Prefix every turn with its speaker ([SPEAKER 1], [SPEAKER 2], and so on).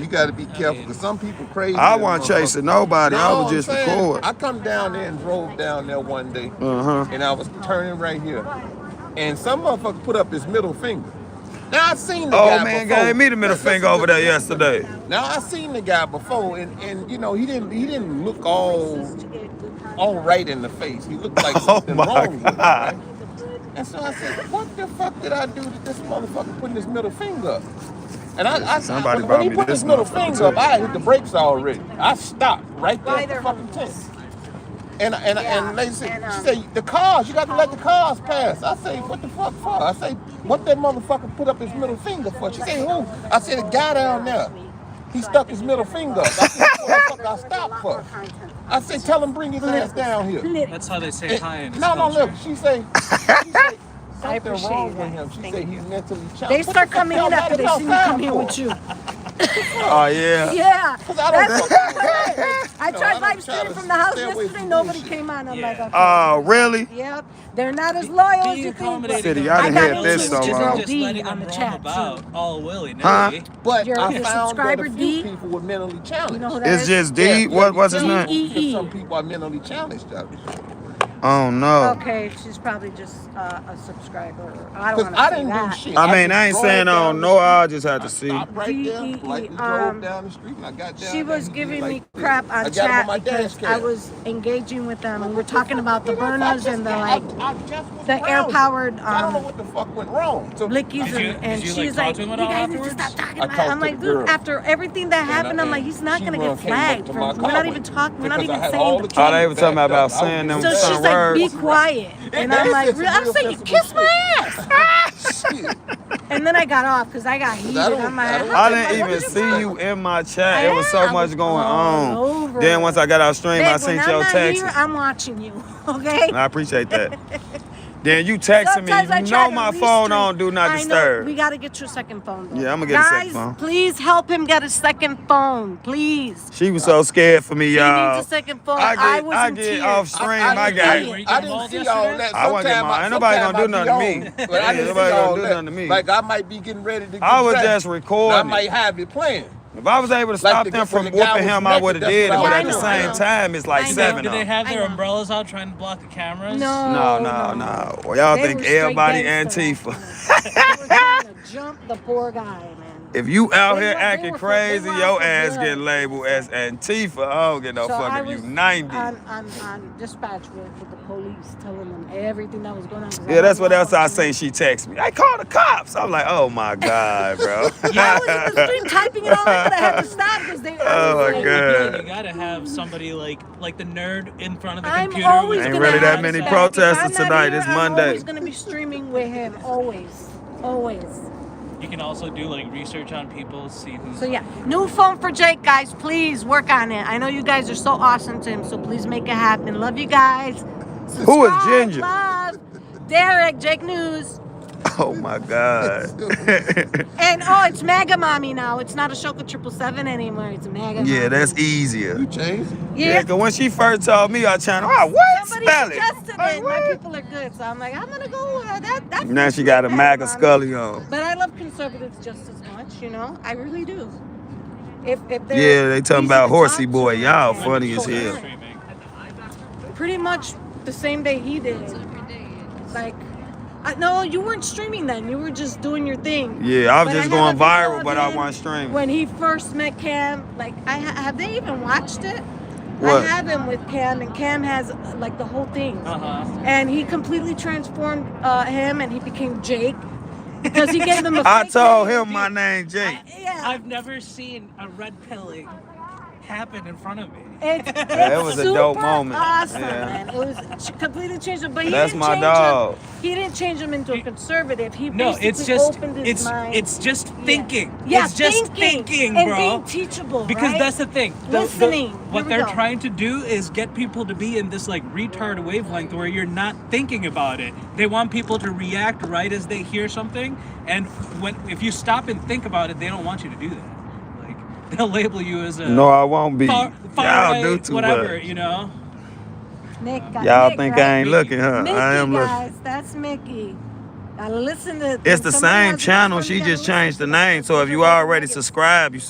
[SPEAKER 1] You got to be careful because some people crazy
[SPEAKER 2] I
[SPEAKER 1] than a
[SPEAKER 2] wasn't
[SPEAKER 1] motherfucker.
[SPEAKER 2] chasing nobody. I
[SPEAKER 1] No,
[SPEAKER 2] was
[SPEAKER 1] I'm
[SPEAKER 2] just
[SPEAKER 1] saying
[SPEAKER 2] recording.
[SPEAKER 1] I come down there and drove down there one day,
[SPEAKER 2] Uh huh.
[SPEAKER 1] and I was turning right here, and some motherfucker put up his middle finger. Now I seen the
[SPEAKER 2] Old
[SPEAKER 1] guy
[SPEAKER 2] Oh, man gave
[SPEAKER 1] before.
[SPEAKER 2] me the middle
[SPEAKER 1] Li-
[SPEAKER 2] finger
[SPEAKER 1] Listen,
[SPEAKER 2] over
[SPEAKER 1] li-
[SPEAKER 2] there
[SPEAKER 1] listen to me.
[SPEAKER 2] yesterday.
[SPEAKER 1] Now I seen the guy before, and and you know he didn't he didn't look all all right in the face. He looked like
[SPEAKER 2] Oh
[SPEAKER 1] something
[SPEAKER 2] my
[SPEAKER 1] wrong with him,
[SPEAKER 2] God.
[SPEAKER 1] right? And so I said, what the fuck did I do to this motherfucker putting his middle finger up? And I, I,
[SPEAKER 2] Listen,
[SPEAKER 1] I
[SPEAKER 2] somebody
[SPEAKER 1] when, when
[SPEAKER 2] brought
[SPEAKER 1] he
[SPEAKER 2] me
[SPEAKER 1] put his
[SPEAKER 2] this
[SPEAKER 1] middle
[SPEAKER 2] motherfucker
[SPEAKER 1] finger up,
[SPEAKER 2] too.
[SPEAKER 1] I hit the brakes already. I stopped right there at the fucking tent. And and and um, Oh. they said, she said, the cars, you got to let the cars pass. I say, what the fuck for? I say, what that motherfucker put up his middle finger for? She said, who? I said, the guy down there. He stuck his middle finger up. I said, what the fuck I stopped for? I said, tell him bring his ass down here.
[SPEAKER 3] That's how they say
[SPEAKER 1] And-
[SPEAKER 3] hi in this
[SPEAKER 1] no, no,
[SPEAKER 3] culture.
[SPEAKER 1] look, she say, she say
[SPEAKER 4] I
[SPEAKER 1] something
[SPEAKER 4] appreciate
[SPEAKER 1] wrong with
[SPEAKER 4] that.
[SPEAKER 1] him. She
[SPEAKER 4] Thank
[SPEAKER 1] say
[SPEAKER 4] you.
[SPEAKER 1] he's mentally
[SPEAKER 4] They
[SPEAKER 1] challenged. What the
[SPEAKER 4] start
[SPEAKER 1] fuck
[SPEAKER 4] coming
[SPEAKER 1] y'all
[SPEAKER 4] in
[SPEAKER 1] mad
[SPEAKER 4] after
[SPEAKER 1] at
[SPEAKER 4] they
[SPEAKER 1] y'all
[SPEAKER 4] see you come
[SPEAKER 1] time
[SPEAKER 4] here
[SPEAKER 1] for?
[SPEAKER 4] with you.
[SPEAKER 2] Oh yeah.
[SPEAKER 4] Yeah,
[SPEAKER 1] Cause I don't
[SPEAKER 4] that's
[SPEAKER 1] fuck
[SPEAKER 4] what
[SPEAKER 1] with
[SPEAKER 4] I
[SPEAKER 1] them.
[SPEAKER 4] heard. I
[SPEAKER 1] No, I
[SPEAKER 4] tried
[SPEAKER 1] don't
[SPEAKER 4] live
[SPEAKER 1] try
[SPEAKER 4] streaming
[SPEAKER 1] to
[SPEAKER 4] from the house
[SPEAKER 1] stay away
[SPEAKER 4] yesterday.
[SPEAKER 1] from
[SPEAKER 4] Nobody
[SPEAKER 1] bullshit.
[SPEAKER 4] came on. I'm like,
[SPEAKER 3] Yeah.
[SPEAKER 4] okay.
[SPEAKER 2] Oh really?
[SPEAKER 4] Yep, they're not as loyal as
[SPEAKER 3] Being
[SPEAKER 4] you think, but
[SPEAKER 3] accommodating
[SPEAKER 2] City,
[SPEAKER 3] of
[SPEAKER 2] I
[SPEAKER 4] I
[SPEAKER 2] done
[SPEAKER 4] got
[SPEAKER 2] had
[SPEAKER 3] people
[SPEAKER 2] this
[SPEAKER 4] into it
[SPEAKER 2] so
[SPEAKER 4] with your
[SPEAKER 3] isn't
[SPEAKER 4] girl
[SPEAKER 2] long.
[SPEAKER 3] just
[SPEAKER 4] D on
[SPEAKER 3] letting them
[SPEAKER 4] the
[SPEAKER 3] roam
[SPEAKER 4] chat too.
[SPEAKER 3] about all willy
[SPEAKER 2] Huh?
[SPEAKER 3] nilly.
[SPEAKER 1] But
[SPEAKER 4] Your
[SPEAKER 1] I
[SPEAKER 4] your
[SPEAKER 1] found that a
[SPEAKER 4] subscriber
[SPEAKER 1] few
[SPEAKER 4] D,
[SPEAKER 1] people were mentally
[SPEAKER 4] you know
[SPEAKER 1] challenged.
[SPEAKER 4] who that
[SPEAKER 2] It's
[SPEAKER 4] is?
[SPEAKER 2] just
[SPEAKER 1] Yeah,
[SPEAKER 2] D.
[SPEAKER 1] you gotta
[SPEAKER 2] What
[SPEAKER 1] be
[SPEAKER 2] was his
[SPEAKER 4] D
[SPEAKER 2] name?
[SPEAKER 1] careful
[SPEAKER 4] E
[SPEAKER 1] because some
[SPEAKER 4] E.
[SPEAKER 1] people are mentally challenged out there.
[SPEAKER 2] Oh no.
[SPEAKER 4] Okay, she's probably just uh, a subscriber. I don't
[SPEAKER 1] Cause
[SPEAKER 4] want to
[SPEAKER 1] I
[SPEAKER 4] say
[SPEAKER 1] didn't do
[SPEAKER 4] that.
[SPEAKER 1] shit.
[SPEAKER 2] I
[SPEAKER 1] I
[SPEAKER 2] mean,
[SPEAKER 1] just
[SPEAKER 2] I ain't saying
[SPEAKER 1] drove
[SPEAKER 2] I don't
[SPEAKER 1] down the
[SPEAKER 2] know. I
[SPEAKER 1] street.
[SPEAKER 2] just had
[SPEAKER 1] I
[SPEAKER 2] to see.
[SPEAKER 1] stopped right
[SPEAKER 4] D
[SPEAKER 1] there,
[SPEAKER 4] E E.
[SPEAKER 1] lightly drove
[SPEAKER 4] Um,
[SPEAKER 1] down the street, and I got
[SPEAKER 4] she
[SPEAKER 1] down there.
[SPEAKER 4] was
[SPEAKER 1] And he did
[SPEAKER 4] giving
[SPEAKER 1] like
[SPEAKER 4] me
[SPEAKER 1] this. I
[SPEAKER 4] crap on
[SPEAKER 1] got him on
[SPEAKER 4] chat
[SPEAKER 1] my dash
[SPEAKER 4] because I
[SPEAKER 1] cam.
[SPEAKER 4] was engaging with them. We
[SPEAKER 1] Like,
[SPEAKER 4] were
[SPEAKER 1] what the
[SPEAKER 4] talking
[SPEAKER 1] fuck
[SPEAKER 4] about the
[SPEAKER 1] did I? I
[SPEAKER 4] burners
[SPEAKER 1] just
[SPEAKER 4] and the
[SPEAKER 1] got.
[SPEAKER 4] like,
[SPEAKER 1] I, I just was
[SPEAKER 4] the air
[SPEAKER 1] browsing.
[SPEAKER 4] powered
[SPEAKER 1] I don't know
[SPEAKER 4] um
[SPEAKER 1] what the fuck went wrong. So
[SPEAKER 4] blickies
[SPEAKER 3] Did you
[SPEAKER 4] and,
[SPEAKER 3] did
[SPEAKER 4] and
[SPEAKER 3] you
[SPEAKER 4] she's like,
[SPEAKER 3] like talk to him at
[SPEAKER 4] you
[SPEAKER 3] all
[SPEAKER 4] guys need to stop
[SPEAKER 3] afterwards?
[SPEAKER 4] talking
[SPEAKER 1] I
[SPEAKER 4] about it. I'm
[SPEAKER 1] talked to the
[SPEAKER 4] like, dude,
[SPEAKER 1] girl,
[SPEAKER 4] after everything that
[SPEAKER 1] and I,
[SPEAKER 4] happened, I'm like,
[SPEAKER 1] and
[SPEAKER 4] he's not
[SPEAKER 1] she
[SPEAKER 4] gonna get
[SPEAKER 1] run came up
[SPEAKER 4] flagged
[SPEAKER 1] to
[SPEAKER 4] for
[SPEAKER 1] my
[SPEAKER 4] we're not
[SPEAKER 1] car
[SPEAKER 4] even
[SPEAKER 1] with it
[SPEAKER 4] talking, we're not
[SPEAKER 1] because I
[SPEAKER 4] even
[SPEAKER 1] had
[SPEAKER 4] saying
[SPEAKER 1] all the
[SPEAKER 2] Oh,
[SPEAKER 4] the K.
[SPEAKER 2] they
[SPEAKER 1] cameras
[SPEAKER 2] were talking
[SPEAKER 1] backed
[SPEAKER 2] about
[SPEAKER 1] up. I was
[SPEAKER 2] saying
[SPEAKER 1] giving
[SPEAKER 2] them
[SPEAKER 4] So
[SPEAKER 1] them
[SPEAKER 4] she's
[SPEAKER 2] certain
[SPEAKER 1] back
[SPEAKER 4] like,
[SPEAKER 1] up.
[SPEAKER 4] be
[SPEAKER 2] words.
[SPEAKER 4] quiet.
[SPEAKER 1] That,
[SPEAKER 4] And
[SPEAKER 1] that
[SPEAKER 4] I'm
[SPEAKER 1] is
[SPEAKER 4] like,
[SPEAKER 1] just
[SPEAKER 4] "Re-
[SPEAKER 1] some
[SPEAKER 4] I'm
[SPEAKER 1] real
[SPEAKER 4] saying, you
[SPEAKER 1] sensible
[SPEAKER 4] kiss
[SPEAKER 1] shit.
[SPEAKER 4] my ass.
[SPEAKER 1] Shit.
[SPEAKER 4] And then I got off because I got
[SPEAKER 1] 'Cause I
[SPEAKER 4] heated. I'm
[SPEAKER 1] don't, I
[SPEAKER 4] like,
[SPEAKER 1] don't
[SPEAKER 4] how
[SPEAKER 2] I
[SPEAKER 4] the
[SPEAKER 1] take
[SPEAKER 4] fuck,
[SPEAKER 2] didn't
[SPEAKER 4] what
[SPEAKER 2] even
[SPEAKER 4] did you
[SPEAKER 1] motherfuckers
[SPEAKER 2] see
[SPEAKER 4] talk?
[SPEAKER 2] you
[SPEAKER 1] personal.
[SPEAKER 2] in my
[SPEAKER 4] I
[SPEAKER 2] chat. It was
[SPEAKER 4] am.
[SPEAKER 2] so
[SPEAKER 4] I was
[SPEAKER 2] much going
[SPEAKER 4] all
[SPEAKER 2] on. Then
[SPEAKER 4] over
[SPEAKER 2] once
[SPEAKER 4] it.
[SPEAKER 2] I got out stream, I
[SPEAKER 4] Babe, when
[SPEAKER 2] seen
[SPEAKER 4] I'm
[SPEAKER 2] your
[SPEAKER 4] not here,
[SPEAKER 2] texts.
[SPEAKER 4] I'm watching you, okay?
[SPEAKER 2] And I appreciate that. Then you texting me,
[SPEAKER 4] Sometimes I
[SPEAKER 2] you
[SPEAKER 4] try
[SPEAKER 2] know
[SPEAKER 4] to
[SPEAKER 2] my phone
[SPEAKER 4] restream.
[SPEAKER 2] on do not
[SPEAKER 4] I know we
[SPEAKER 2] disturb.
[SPEAKER 4] gotta get your second phone though.
[SPEAKER 2] Yeah, I'm gonna get a second
[SPEAKER 4] Guys,
[SPEAKER 2] phone.
[SPEAKER 4] please help him get a second phone, please.
[SPEAKER 2] She was so scared for me,
[SPEAKER 4] He needs a
[SPEAKER 2] y'all.
[SPEAKER 4] second phone.
[SPEAKER 2] I
[SPEAKER 4] I
[SPEAKER 2] get
[SPEAKER 4] was
[SPEAKER 2] I
[SPEAKER 4] in
[SPEAKER 2] get off
[SPEAKER 4] tears.
[SPEAKER 1] I,
[SPEAKER 2] stream.
[SPEAKER 1] I didn't, I
[SPEAKER 2] I
[SPEAKER 3] Were
[SPEAKER 2] got
[SPEAKER 3] you, were
[SPEAKER 1] didn't,
[SPEAKER 3] you
[SPEAKER 1] I
[SPEAKER 3] getting
[SPEAKER 1] didn't
[SPEAKER 3] mauled
[SPEAKER 1] see all
[SPEAKER 3] yesterday?
[SPEAKER 1] that.
[SPEAKER 2] I wasn't getting
[SPEAKER 1] Sometime
[SPEAKER 2] my
[SPEAKER 1] I,
[SPEAKER 2] ain't nobody
[SPEAKER 1] sometime
[SPEAKER 2] gonna
[SPEAKER 1] I
[SPEAKER 2] do
[SPEAKER 1] be
[SPEAKER 2] nothing to
[SPEAKER 1] on,
[SPEAKER 2] me.
[SPEAKER 1] but I
[SPEAKER 2] Ain't
[SPEAKER 1] didn't see
[SPEAKER 2] nobody gonna
[SPEAKER 1] all
[SPEAKER 2] do
[SPEAKER 1] that.
[SPEAKER 2] nothing to me.
[SPEAKER 1] Like I might be getting ready to
[SPEAKER 2] I
[SPEAKER 1] get
[SPEAKER 2] was
[SPEAKER 1] dressed,
[SPEAKER 2] just
[SPEAKER 1] and I
[SPEAKER 2] recording it.
[SPEAKER 1] might have it playing.
[SPEAKER 2] If I was able to
[SPEAKER 1] Like
[SPEAKER 2] stop
[SPEAKER 1] the,
[SPEAKER 2] them
[SPEAKER 1] when the
[SPEAKER 2] from
[SPEAKER 1] guy
[SPEAKER 2] whooping
[SPEAKER 1] was
[SPEAKER 2] him, I would
[SPEAKER 1] naked,
[SPEAKER 2] have
[SPEAKER 1] that's what
[SPEAKER 2] did
[SPEAKER 4] Yeah,
[SPEAKER 1] I was
[SPEAKER 2] it. But at
[SPEAKER 4] I
[SPEAKER 2] the
[SPEAKER 4] know,
[SPEAKER 1] doing.
[SPEAKER 4] I
[SPEAKER 2] same
[SPEAKER 4] know.
[SPEAKER 2] time, it's like
[SPEAKER 4] I
[SPEAKER 3] Did they
[SPEAKER 4] know.
[SPEAKER 2] seven
[SPEAKER 3] did
[SPEAKER 2] of
[SPEAKER 3] they
[SPEAKER 2] them.
[SPEAKER 3] have
[SPEAKER 4] I
[SPEAKER 3] their
[SPEAKER 4] know.
[SPEAKER 3] umbrellas out trying to block the cameras?
[SPEAKER 2] No,
[SPEAKER 4] No,
[SPEAKER 2] no,
[SPEAKER 4] no.
[SPEAKER 2] no. Well, y'all
[SPEAKER 4] They
[SPEAKER 2] think
[SPEAKER 4] were straight
[SPEAKER 2] everybody
[SPEAKER 4] gangster
[SPEAKER 2] Antifa.
[SPEAKER 4] after us. They were trying to jump the poor guy, man.
[SPEAKER 2] If you out
[SPEAKER 4] They
[SPEAKER 2] here
[SPEAKER 4] were they
[SPEAKER 2] acting
[SPEAKER 4] were for they
[SPEAKER 2] crazy,
[SPEAKER 4] were out
[SPEAKER 2] your
[SPEAKER 4] for
[SPEAKER 2] ass get
[SPEAKER 4] blood, man.
[SPEAKER 2] labeled
[SPEAKER 4] So
[SPEAKER 2] as Antifa. I don't give no
[SPEAKER 4] So
[SPEAKER 2] fuck
[SPEAKER 4] I
[SPEAKER 2] if you
[SPEAKER 4] was
[SPEAKER 2] 90.
[SPEAKER 4] on, on, on dispatch with, with the police, telling them everything that was going on because I
[SPEAKER 2] Yeah, that's
[SPEAKER 4] wasn't
[SPEAKER 2] what
[SPEAKER 4] on
[SPEAKER 2] else I
[SPEAKER 4] fucking
[SPEAKER 2] seen.
[SPEAKER 4] duty.
[SPEAKER 2] She text me. I called the cops. I'm like, oh my God, bro.
[SPEAKER 4] I was in the stream typing it all in, but I had to stop because they. I was
[SPEAKER 2] oh my
[SPEAKER 3] I,
[SPEAKER 4] like,
[SPEAKER 3] I feel like
[SPEAKER 2] God.
[SPEAKER 3] you gotta have somebody like like the nerd in front of the
[SPEAKER 4] I'm
[SPEAKER 3] computer with
[SPEAKER 4] always
[SPEAKER 3] the
[SPEAKER 2] Ain't
[SPEAKER 4] gonna
[SPEAKER 2] really that
[SPEAKER 4] have
[SPEAKER 3] flags
[SPEAKER 2] many
[SPEAKER 4] that. If
[SPEAKER 3] out.
[SPEAKER 2] protesters
[SPEAKER 4] I'm not
[SPEAKER 2] tonight.
[SPEAKER 4] here,
[SPEAKER 2] It's
[SPEAKER 4] I'm
[SPEAKER 2] Monday.
[SPEAKER 4] always gonna be streaming with him. Always, always.
[SPEAKER 3] You can also do like research on people, see who's
[SPEAKER 4] So yeah, new phone for Jake, guys. Please work on it. I know you guys are so awesome to him, so please make it happen. Love you guys.
[SPEAKER 2] Who is
[SPEAKER 4] Subscribe,
[SPEAKER 2] Ginger?
[SPEAKER 4] love, Derek, Jake News.
[SPEAKER 2] Oh my God.
[SPEAKER 4] And oh, it's Mega Mommy now. It's not Ashoka Triple Seven anymore. It's Mega
[SPEAKER 2] yeah,
[SPEAKER 4] Mommy.
[SPEAKER 2] that's easier.
[SPEAKER 1] You changed.
[SPEAKER 2] Yeah,
[SPEAKER 4] Yeah.
[SPEAKER 2] because when she first told me our channel, I what
[SPEAKER 4] Somebody
[SPEAKER 2] spell it?
[SPEAKER 4] suggested it.
[SPEAKER 2] Like
[SPEAKER 4] and My
[SPEAKER 2] what?
[SPEAKER 4] people are good, so I'm like, I'm gonna go. Uh, that that
[SPEAKER 2] Now
[SPEAKER 4] fits
[SPEAKER 2] she
[SPEAKER 4] with
[SPEAKER 2] got a
[SPEAKER 4] Mega
[SPEAKER 2] MAGA
[SPEAKER 4] Mommy.
[SPEAKER 2] scully on.
[SPEAKER 4] But I love conservatives just as much. You know, I really do. If if they're
[SPEAKER 2] Yeah, they talking
[SPEAKER 4] easy
[SPEAKER 2] about
[SPEAKER 4] to
[SPEAKER 2] horsey
[SPEAKER 4] talk to
[SPEAKER 2] boy. Y'all
[SPEAKER 3] when did
[SPEAKER 4] and
[SPEAKER 2] funny
[SPEAKER 3] you
[SPEAKER 2] as
[SPEAKER 3] start
[SPEAKER 2] hell.
[SPEAKER 4] coherent.
[SPEAKER 3] streaming?
[SPEAKER 4] pretty much the same day he did. Like, I, no, you weren't streaming then. You were just doing your thing.
[SPEAKER 2] Yeah, I was
[SPEAKER 4] But I
[SPEAKER 2] just
[SPEAKER 4] have
[SPEAKER 2] going
[SPEAKER 4] a video
[SPEAKER 2] viral,
[SPEAKER 4] of
[SPEAKER 2] but I
[SPEAKER 4] him
[SPEAKER 2] wasn't streaming.
[SPEAKER 4] when he first met Cam. Like, I ha- have they even watched it? I
[SPEAKER 2] What?
[SPEAKER 4] have him with Cam, and Cam has uh, like the whole thing.
[SPEAKER 3] Uh-huh.
[SPEAKER 4] And he completely transformed uh, him, and he became Jake because he gave him a
[SPEAKER 2] I
[SPEAKER 4] fake
[SPEAKER 2] told
[SPEAKER 4] name.
[SPEAKER 2] him my name Jake.
[SPEAKER 4] I, yeah,
[SPEAKER 3] I've never seen a red pilling happen in front of me.
[SPEAKER 4] it's
[SPEAKER 2] Yeah, it
[SPEAKER 4] it's
[SPEAKER 2] was a dope
[SPEAKER 4] super
[SPEAKER 2] moment.
[SPEAKER 4] awesome,
[SPEAKER 2] Yeah.
[SPEAKER 4] man. It was she completely changed him, but he
[SPEAKER 2] That's
[SPEAKER 4] didn't
[SPEAKER 2] my
[SPEAKER 4] change him.
[SPEAKER 2] dog.
[SPEAKER 4] He didn't change him into a conservative. He
[SPEAKER 3] No, it's
[SPEAKER 4] basically
[SPEAKER 3] just
[SPEAKER 4] opened his
[SPEAKER 3] it's
[SPEAKER 4] mind.
[SPEAKER 3] it's just
[SPEAKER 4] Yeah.
[SPEAKER 3] thinking.
[SPEAKER 4] Yeah,
[SPEAKER 3] it's just
[SPEAKER 4] thinking,
[SPEAKER 3] thinking,
[SPEAKER 4] and
[SPEAKER 3] bro.
[SPEAKER 4] being teachable,
[SPEAKER 3] Because
[SPEAKER 4] right?
[SPEAKER 3] that's the thing. The, the,
[SPEAKER 4] Listening. Here
[SPEAKER 3] what
[SPEAKER 4] we
[SPEAKER 3] they're
[SPEAKER 4] go.
[SPEAKER 3] trying to do is get people to be in this like retard wavelength where you're not thinking about it. They want people to react right as they hear something, and when if you stop and think about it, they don't want you to do that. Like they'll label you as a
[SPEAKER 2] No, I won't be.
[SPEAKER 3] far, far
[SPEAKER 2] Y'all do
[SPEAKER 3] right,
[SPEAKER 2] too
[SPEAKER 3] whatever,
[SPEAKER 2] much.
[SPEAKER 3] you know.
[SPEAKER 4] Nick, got,
[SPEAKER 2] Y'all
[SPEAKER 4] Nick,
[SPEAKER 2] think I
[SPEAKER 4] right?
[SPEAKER 2] ain't
[SPEAKER 3] Mickey.
[SPEAKER 2] looking, huh? I
[SPEAKER 4] Mickey,
[SPEAKER 2] am looking.
[SPEAKER 4] guys, that's Mickey. I listen to
[SPEAKER 2] It's
[SPEAKER 4] when
[SPEAKER 2] the
[SPEAKER 4] somebody
[SPEAKER 2] same
[SPEAKER 4] has an
[SPEAKER 2] channel.
[SPEAKER 4] iPhone, you
[SPEAKER 2] She
[SPEAKER 4] gotta
[SPEAKER 2] just
[SPEAKER 4] listen
[SPEAKER 2] changed
[SPEAKER 4] to
[SPEAKER 2] the
[SPEAKER 4] them
[SPEAKER 2] name.
[SPEAKER 4] because
[SPEAKER 2] So
[SPEAKER 4] they
[SPEAKER 2] if
[SPEAKER 4] don't
[SPEAKER 2] you
[SPEAKER 4] have the
[SPEAKER 2] already
[SPEAKER 4] nuggets.
[SPEAKER 2] subscribed, you